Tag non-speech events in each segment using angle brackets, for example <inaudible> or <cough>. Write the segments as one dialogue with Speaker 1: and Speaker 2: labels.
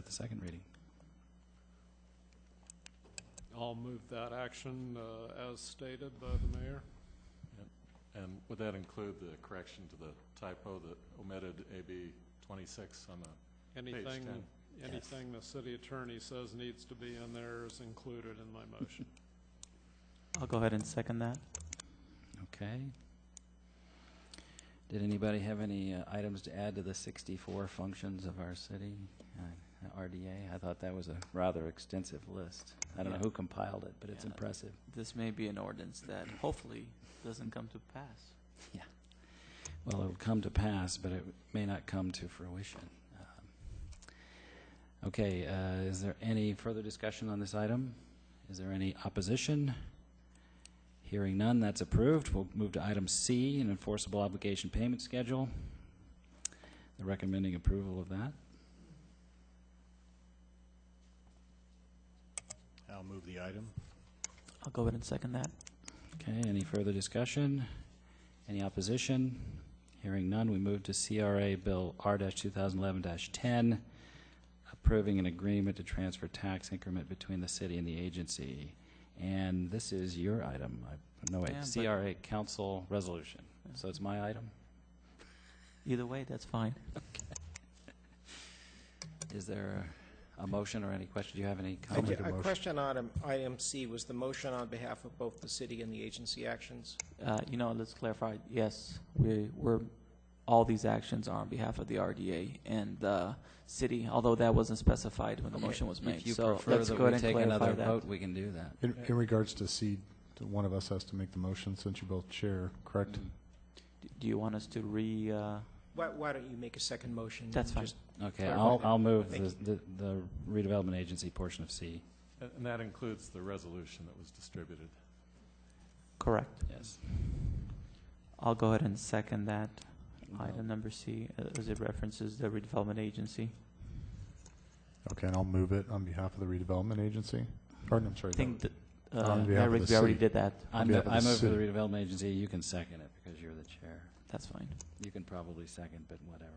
Speaker 1: at the second reading.
Speaker 2: I'll move that action uh, as stated by the mayor.
Speaker 3: And would that include the correction to the typo that omitted AB 26 on the page
Speaker 2: Anything,
Speaker 3: 10?
Speaker 2: anything the city attorney says needs to be in there is included in my motion.
Speaker 4: I'll go ahead and second that.
Speaker 1: Okay. Did anybody have any uh, items to add to the 64 functions of our city, uh, RDA? I thought that was a rather extensive list. I don't know
Speaker 4: Yeah.
Speaker 1: who compiled it, but it's
Speaker 4: Yeah.
Speaker 1: impressive.
Speaker 4: This may be an ordinance that hopefully doesn't come to pass.
Speaker 1: Well, it'll come to pass, but it may not come to fruition. Um, Okay, uh, is there any further discussion on this item? Is there any opposition? Hearing none, that's approved. We'll move to item C, an enforceable obligation payment schedule. The recommending approval of that.
Speaker 5: I'll move the item.
Speaker 4: I'll go ahead and second that.
Speaker 1: Okay, any further discussion? Any opposition? Hearing none, we move to CRA Bill R-2011-10, approving an agreement to transfer tax increment between the city and the agency. And this is your item, I- no wait,
Speaker 4: Yeah, but-
Speaker 1: CRA Council Resolution.
Speaker 4: Yeah.
Speaker 1: So it's my item?
Speaker 4: Either way, that's fine.
Speaker 1: Is there a motion or any question? Do you have any
Speaker 6: I
Speaker 1: comment?
Speaker 6: ju- A question on item- item C, was the motion on behalf of both the city and the agency actions?
Speaker 4: Uh, you know, let's clarify, yes, we, we're, all these actions are on behalf of the RDA and the city, although that wasn't specified when the motion was made.
Speaker 1: If you
Speaker 4: So
Speaker 1: prefer
Speaker 4: let's
Speaker 1: that
Speaker 4: go ahead
Speaker 1: we
Speaker 4: and
Speaker 1: take another
Speaker 4: clarify that.
Speaker 1: vote, we can do that.
Speaker 7: In, in regards to C, one of us has to make the motion since you both chair, correct?
Speaker 4: Do- Do you want us to re, uh,
Speaker 6: Why, why don't you make a second motion? and
Speaker 4: That's fine.
Speaker 6: just-
Speaker 1: Okay,
Speaker 6: Clarify
Speaker 1: I'll,
Speaker 6: that.
Speaker 1: I'll move
Speaker 6: Thank
Speaker 1: the the- the redevelopment agency portion of C.
Speaker 3: And- And that includes the resolution that was distributed.
Speaker 4: correct?
Speaker 1: Yes.
Speaker 4: I'll go ahead and second that. Item number C, uh, as it references the redevelopment agency.
Speaker 7: Okay, and I'll move it on behalf of the redevelopment agency. Pardon, I'm
Speaker 4: I
Speaker 7: sorry.
Speaker 4: think, that, uh,
Speaker 7: On behalf of
Speaker 4: Eric,
Speaker 7: the
Speaker 4: we already
Speaker 7: city.
Speaker 4: did that.
Speaker 1: I
Speaker 7: On
Speaker 1: move,
Speaker 7: behalf of
Speaker 1: I
Speaker 7: the
Speaker 1: move for the
Speaker 7: city.
Speaker 1: redevelopment agency, you can second it, because you're the chair.
Speaker 4: That's fine.
Speaker 1: You can probably second, but whatever.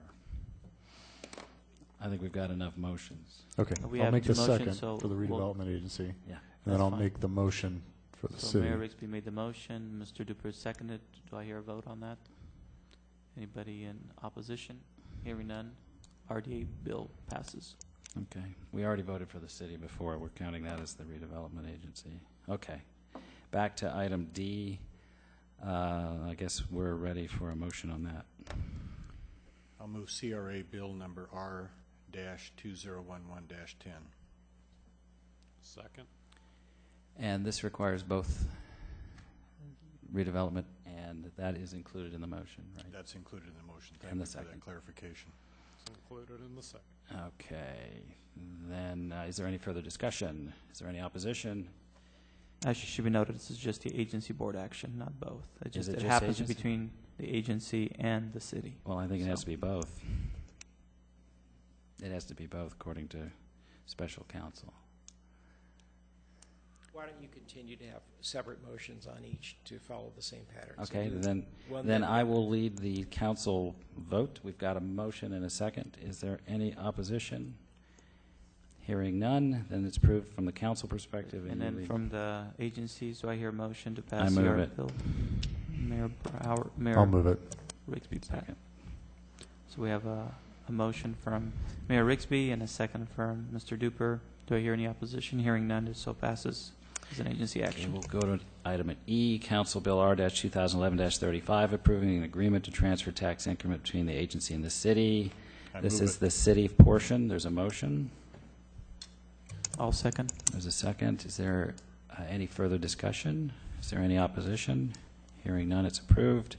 Speaker 1: I think we've got enough motions.
Speaker 7: Okay,
Speaker 4: We
Speaker 7: I'll
Speaker 4: have
Speaker 7: make
Speaker 4: two
Speaker 7: the
Speaker 4: motions,
Speaker 7: second
Speaker 4: so
Speaker 7: for the
Speaker 4: we'll-
Speaker 7: redevelopment agency,
Speaker 1: Yeah.
Speaker 7: and then I'll
Speaker 4: fine.
Speaker 7: make the motion for the
Speaker 4: So
Speaker 7: city.
Speaker 4: Mayor Rigsby made the motion, Mr. Duper seconded. Do I hear a vote on that? Anybody in opposition? Hearing none, RDA bill passes.
Speaker 1: Okay. We already voted for the city before. We're counting that as the redevelopment agency. Okay. Back to item D. Uh, I guess we're ready for a motion on that.
Speaker 5: I'll move CRA Bill Number R-2011-10.
Speaker 2: Second.
Speaker 1: And this requires both redevelopment, and that is included in the motion, right?
Speaker 5: That's included in the motion. Thank
Speaker 1: And the
Speaker 5: you for
Speaker 1: second.
Speaker 5: that clarification.
Speaker 2: It's included in the second.
Speaker 1: Okay, then, uh, is there any further discussion? Is there any opposition?
Speaker 4: Actually, should be noted, this is just the agency board action, not both. It just,
Speaker 1: it
Speaker 4: it
Speaker 1: just
Speaker 4: happens
Speaker 1: agency?
Speaker 4: between the agency and the city.
Speaker 1: Well, I think it has
Speaker 4: So-
Speaker 1: to be both. It has to be both, according to special counsel.
Speaker 6: Why don't you continue to have separate motions on each to follow the same pattern? So
Speaker 1: Okay,
Speaker 6: do
Speaker 1: then,
Speaker 6: one
Speaker 1: then
Speaker 6: that-
Speaker 1: I will lead the council vote. We've got a motion and a second. Is there any opposition? Hearing none, then it's approved from the council perspective.
Speaker 4: And
Speaker 1: you
Speaker 4: then
Speaker 1: lead-
Speaker 4: from the agencies, do I hear a motion to pass?
Speaker 1: move
Speaker 4: CR
Speaker 1: it.
Speaker 4: bill? Mayor Brower,
Speaker 7: I'll
Speaker 4: Mayor
Speaker 7: move it.
Speaker 4: Rigsby, pa-
Speaker 1: Second.
Speaker 4: So we have a, a motion from Mayor Rigsby and a second from Mr. Duper. Do I hear any opposition? Hearing none, it so passes as an agency
Speaker 1: Okay,
Speaker 4: action.
Speaker 1: we'll go to item E, Council Bill R-2011-35, approving an agreement to transfer tax increment between the agency and the city.
Speaker 5: I
Speaker 1: This
Speaker 5: move
Speaker 1: is
Speaker 5: it.
Speaker 1: the city portion. There's a motion.
Speaker 4: I'll second.
Speaker 1: There's a second. Is there uh, any further discussion? Is there any opposition? Hearing none, it's approved.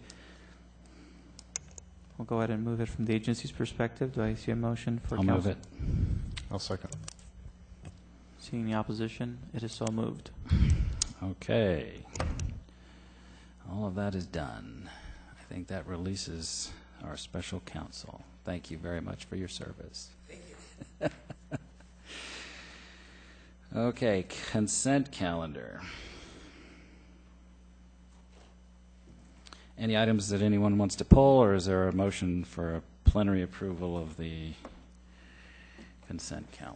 Speaker 4: We'll go ahead and move it from the agency's perspective. Do I see a motion for
Speaker 1: I'll
Speaker 4: council?
Speaker 1: move it.
Speaker 7: I'll second.
Speaker 4: Seeing the opposition, it is so moved.
Speaker 1: Okay. All of that is done. I think that releases our special counsel. Thank you very much for your service. <laughs> Okay, consent calendar. Any items that anyone wants to pull, or is there a motion for a plenary approval of the consent calendar?